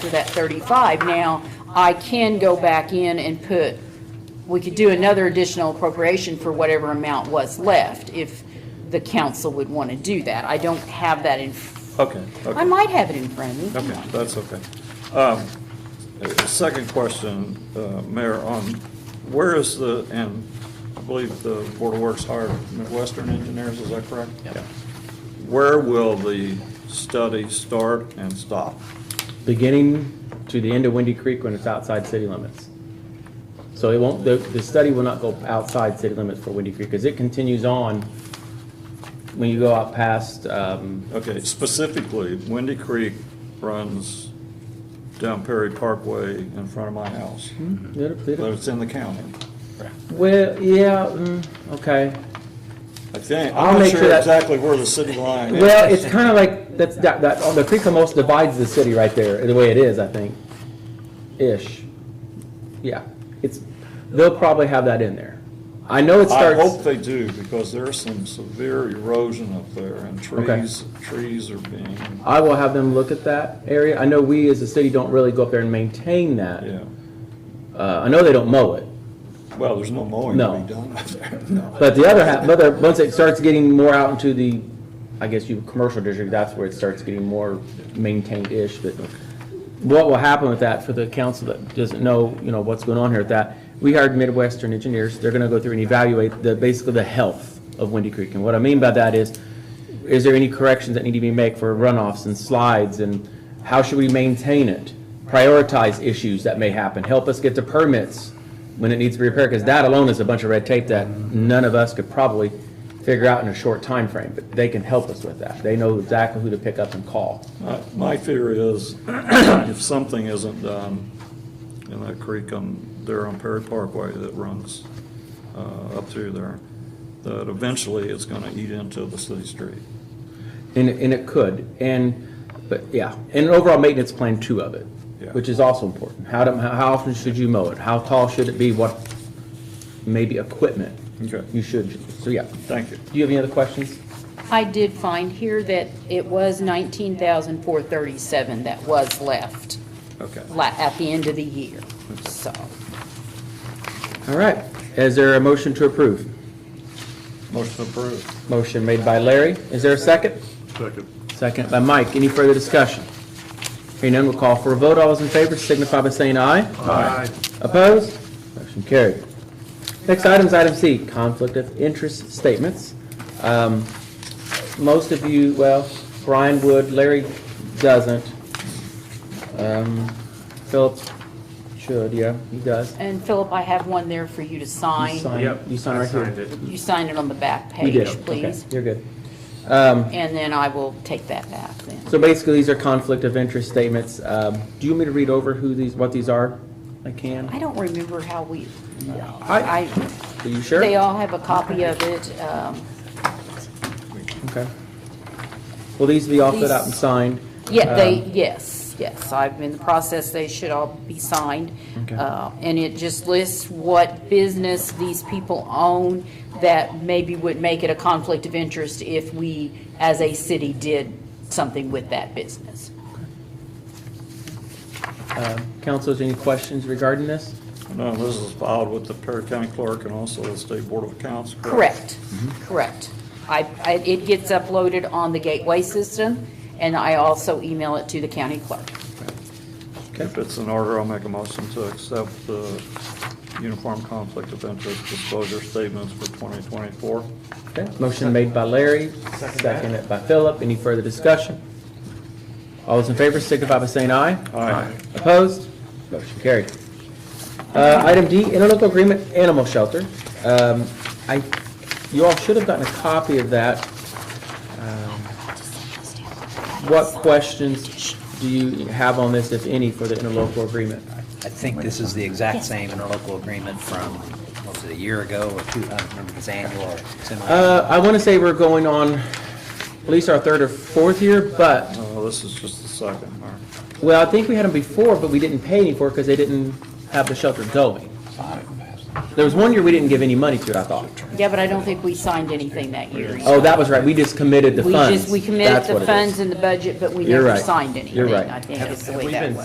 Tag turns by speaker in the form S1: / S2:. S1: for that 35. Now, I can go back in and put, we could do another additional appropriation for whatever amount was left, if the council would want to do that. I don't have that in,
S2: Okay,
S1: I
S2: okay,
S1: might have it in front of me.
S2: okay, that's okay. Um, uh, Second question, uh, Mayor, on where is the, and I believe the Board of Works hired Midwestern engineers, is that correct? Yeah. Where will the study start and stop?
S3: beginning to the end of Windy Creek when it's outside city limits. So it won't, the, the study will not go outside city limits for Windy Creek, because it continues on when you go out past, um,
S2: Okay, specifically, Windy Creek runs down Perry Parkway in front of my house,
S3: Mm-hmm.
S2: but it's in the county.
S3: well, yeah, mm, okay.
S2: I think,
S3: I'll
S2: I'm not
S3: make sure
S2: sure
S3: that-
S2: exactly where the city line is.
S3: Well, it's kind of like, that's, that, that, oh, the creek almost divides the city right there, the way it is, I think, ish. Yeah, it's, they'll probably have that in there. I know it
S2: I
S3: starts.
S2: hope they do, because there's some severe erosion up there, and trees, trees are being,
S3: I will have them look at that area. I know we as a city don't really go up there and maintain that.
S2: yeah.
S3: Uh, I know they don't mow it,
S2: Well, there's no mowing to
S3: No.
S2: be done up there, no.
S3: but the other half, but the- once it starts getting more out into the, I guess you, commercial district, that's where it starts getting more maintained-ish, but what will happen with that for the council that doesn't know, you know, what's going on here with that? We hired Midwestern engineers. They're gonna go through and evaluate the, basically the health of Windy Creek. And what I mean by that is, is there any corrections that need to be made for runoffs and slides and how should we maintain it? Prioritize issues that may happen, help us get the permits when it needs to be repaired, because that alone is a bunch of red tape that none of us could probably figure out in a short time frame. but they can help us with that. They know exactly who to pick up and call.
S2: My- My fear is, if something isn't done in that creek on, there on Perry Parkway that runs uh, up through there, that eventually it's gonna eat into the city street.
S3: And, and it could, and, but, yeah, and an overall maintenance plan two of it,
S2: Yeah.
S3: which is also important. How, do- how often should you mow it? How tall should it be? What, maybe equipment?
S2: Okay.
S3: You should, so, yeah.
S2: Thank you.
S3: Do you have any other questions?
S1: I did find here that it was 19,437 that was left
S2: Okay.
S1: la- at the end of the year, so.
S3: All right, is there a motion to approve?
S2: Motion approved.
S3: Motion made by Larry, is there a second? Second. Second by Mike, any further discussion? Hearing none, we'll call for a vote, all those in favor signify by saying aye. Aye. Opposed? Motion carried. Next item is item C, conflict of interest statements. Um, Most of you, well, Brian would, Larry doesn't. Um, Phillips should, yeah, he does.
S1: And Philip, I have one there for you to
S3: You
S1: sign.
S3: sign- You sign right here.
S1: You sign it on the back
S3: You
S1: page,
S3: did, okay,
S1: please.
S3: you're good.
S1: And then I will take that back then.
S3: So basically, these are conflict of interest statements. Um, Do you want me to read over who these, what these are? I
S1: I
S3: can.
S1: don't remember how we,
S3: I-
S1: I,
S3: Are you sure?
S1: they all have a copy of it. um,
S3: Okay. Will these be all filled out and
S1: These-
S3: signed?
S1: Yeah, they,
S3: Um,
S1: yes, yes, I've been in the process, they should all be signed.
S3: Okay.
S1: Uh, And it just lists what business these people own that maybe would make it a conflict of interest if we, as a city, did something with that business.
S3: um, Councilors, any questions regarding this?
S2: No, this is filed with the Perry County Clerk and also the State Board of Accounts,
S1: Correct,
S2: correct?
S3: Mm-hmm.
S1: correct. I, I- it gets uploaded on the gateway system, and I also email it to the county clerk.
S2: If it's in order, I'll make a motion to accept the Uniform Conflict of Interest Disclosure Statements for 2024.
S3: Okay. Motion made by Larry, seconded by Philip. Any further discussion? All those in favor signify by saying aye.
S2: Aye.
S3: Opposed? Motion carried. Uh, Item D, interlocal agreement, animal shelter. Um, I, you all should have gotten a copy of that. Um, What questions do you have on this, if any, for the interlocal agreement?
S4: I think this is the exact same interlocal agreement from, what was it, a year ago or two, I don't remember if it's annual or semi.
S3: Uh, I want to say we're going on at least our third or fourth year, but,
S2: No, Uh, this is just the second, Mayor.
S3: well, I think we had them before, but we didn't pay any for it because they didn't have the shelter going. There was one year we didn't give any money to it, I thought.
S1: Yeah, but I don't think we signed anything that year. either.
S3: Oh, that was right, we just committed the
S1: We
S3: funds.
S1: just, we committed
S3: That's
S1: the
S3: what it is.
S1: funds in the budget, but we
S3: You're
S1: never
S3: right.
S1: signed
S3: You're
S1: anything,
S3: right.
S1: I think is the way that was.